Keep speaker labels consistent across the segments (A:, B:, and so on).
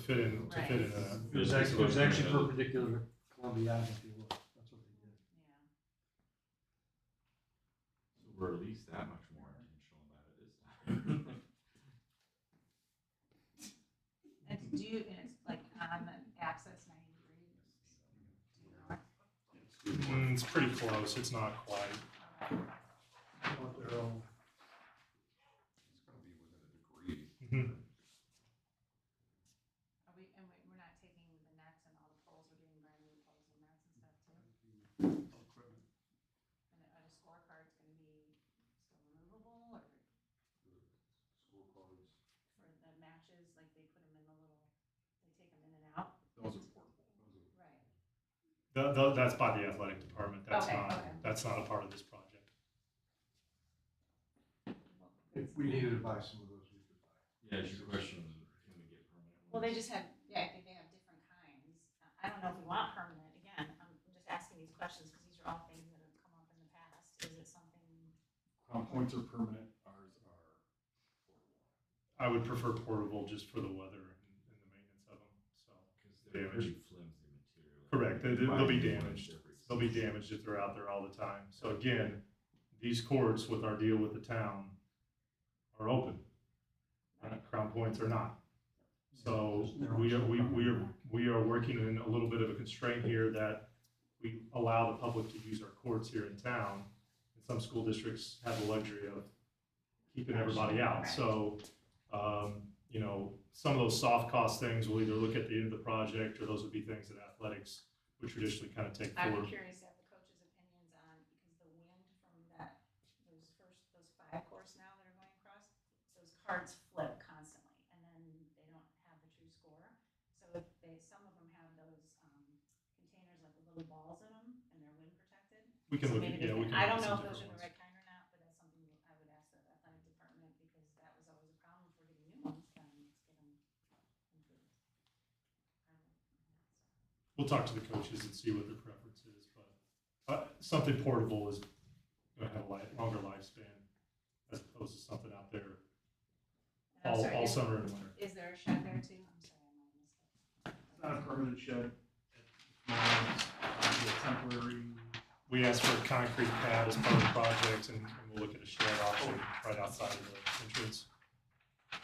A: fit in, to fit in a.
B: It was actually, it was actually perpendicular to Columbia Ave, if you look, that's what they did.
C: We're at least that much more intentional about it this time.
D: And it's due, and it's like on the access ninety degrees.
A: Mm, it's pretty close, it's not quite.
B: Up there, oh,
E: It's gonna be within a degree.
A: Mhm.
D: Are we, and we- we're not taking the nets and all the poles, we're doing brand new poles and nets and stuff too?
B: equipment.
D: And a a scorecard's gonna be still removable or
E: Scorecards.
D: for the matches, like they put them in the little, they take them in and out?
E: Those are portable. Those are-
D: Right.
A: Th- th- that's by the athletic department, that's
D: Okay,
A: not,
D: okay.
A: that's not a part of this project.
B: If we needed to buy some of those, we could buy.
C: Yeah, it's your question, can we get permanent?
D: Well, they
C: ones?
D: just have, yeah, I think they have different kinds. Uh, I don't know if we want permanent, again, I'm I'm just asking these questions because these are all things that have come up in the past. Is it something?
E: Crown points are permanent, ours are portable.
A: I would prefer portable just for the weather and, and the maintenance of them, so.
C: Because they're pretty
A: Damage.
C: flimsy material.
A: Correct, they- they-
C: Buy
A: they'll be
C: new ones
A: damaged.
C: every
A: They'll be
C: season.
A: damaged if they're out there all the time. So again, these courts with our deal with the town are open. Uh, Crown points are not. So we are, we, we are, we are working in a little bit of a constraint here that we allow the public to use our courts here in town. And some school districts have the luxury of keeping everybody out. So, um, you know, some of those soft cost things, we'll either look at the end of the project or those would be things that athletics would traditionally kind of take
D: I'm
A: forward.
D: curious to have the coaches' opinions on, because the wind from that, those first, those five course now that are going across, those cards flip constantly, and then they don't have the true score. So if they, some of them have those, um, containers, like the little balls in them, and they're wind protected.
A: We can
D: So
A: look at,
D: maybe they
A: yeah, we
D: can-
A: can.
D: I
A: look at
D: don't
A: some
D: know if those are
A: different
D: the
A: ones.
D: right kind or not, but that's something that I would ask the athletic department, because that was always a problem for getting new ones, then let's get them improved. I don't know.
A: We'll talk to the coaches and see what their preference is, but, uh, something portable is gonna have a li- longer lifespan as opposed to something out there
D: And I'm
A: all,
D: sorry,
A: all
D: is-
A: summer and winter.
D: Is there a shed there too? I'm sorry, I might
B: It's not a
D: have missed
B: permanent shed. It's a temporary,
A: We asked for a concrete pad as part of the project and and we'll look at a shed option right outside of the entrance.
D: it.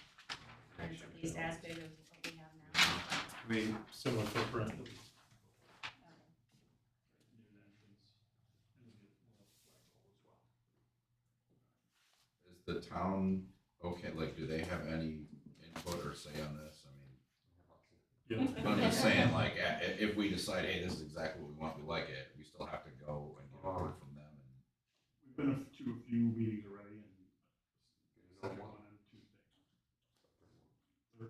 D: It's
F: Uh,
D: at least as big as what we have now.
A: I mean, similar footprint.
D: Okay.
F: Is the town, okay, like, do they have any input or say on this? I
A: Yeah,
F: mean, I'm just saying, like, i- i- if we decide, hey, this is exactly what we want, we like it, we still have to go and get word from them and
B: we've been to a few meetings already and.
G: Second one.
B: on Tuesday.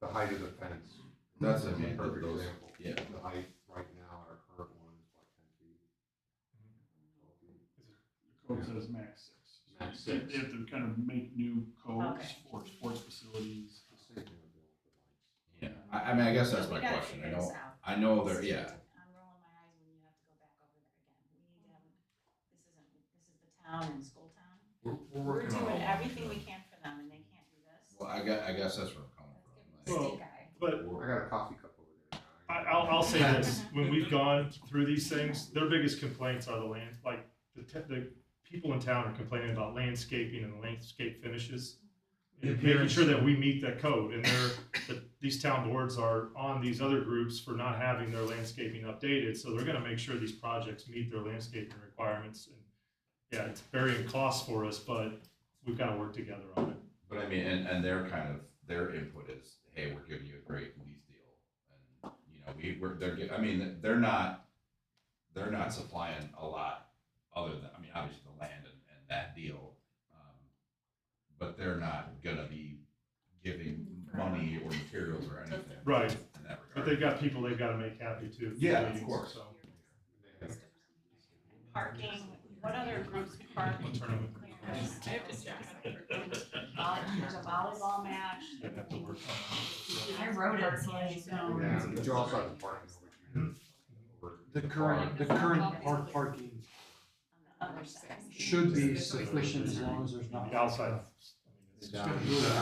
G: The height of the fence.
F: That's
G: a
F: what I mean,
G: Perfect
F: those-
G: example.
F: yeah.
G: The height right now, our current one is like ten feet. twelve feet.
A: Mm-hmm.
B: The code says max six. So
G: Max
B: they-
G: six.
B: They have to kind of make new codes
D: Okay.
B: for sports facilities.
G: The same thing would go with the lights.
F: Yeah, I, I mean, I guess that's
D: We
F: my
D: gotta
F: question. I
D: figure this
F: know,
D: out.
F: I know
D: This
F: there,
D: is-
F: yeah,
D: I'm rolling my eyes when you have to go back over there again. We need to, have- this isn't, this is the town and school town.
C: We're,
D: We're
C: working on all
D: doing
C: of
D: everything
C: them.
D: we can for them and they can't do this.
F: well, I guess, I guess that's where I'm coming
D: Let's give
F: from.
A: Well,
D: them a stink
F: like,
D: eye.
A: but
G: I
F: we're-
G: got a coffee cup over there. now.
A: I, I'll, I'll say this, when we've gone through these things, their biggest complaints are the land, like, the, te- the people in town are complaining about landscaping and landscape finishes. And making sure that we meet that code, and they're, that these town boards are on these other groups for not having their landscaping updated, so they're gonna make sure these projects meet their landscaping requirements. And Yeah, it's varying costs for us, but we've gotta work together on it.
F: But I mean, and, and their kind of, their input is, hey, we're giving you a great lease deal. And, you know, we, we're, they're, gi- I mean, they're not, they're not supplying a lot other than, I mean, obviously the land and, and that deal. um, But they're not gonna be giving money or materials or anything.
A: Right.
F: In that
A: But
F: regard.
A: they've got people they've gotta make happy too.
F: Yeah, of
A: So,
F: course.
G: They have
D: Parking, what other groups park?
A: We'll turn them-
D: There's a volleyball match.
A: They'd have to work on it.
D: I wrote it, so I know.
G: Yeah, but you also have the parking over here.
B: The current, the current park parking
D: On the other side.
B: should be sufficient as long as there's not.
A: The outside. I mean, it's-
G: Down.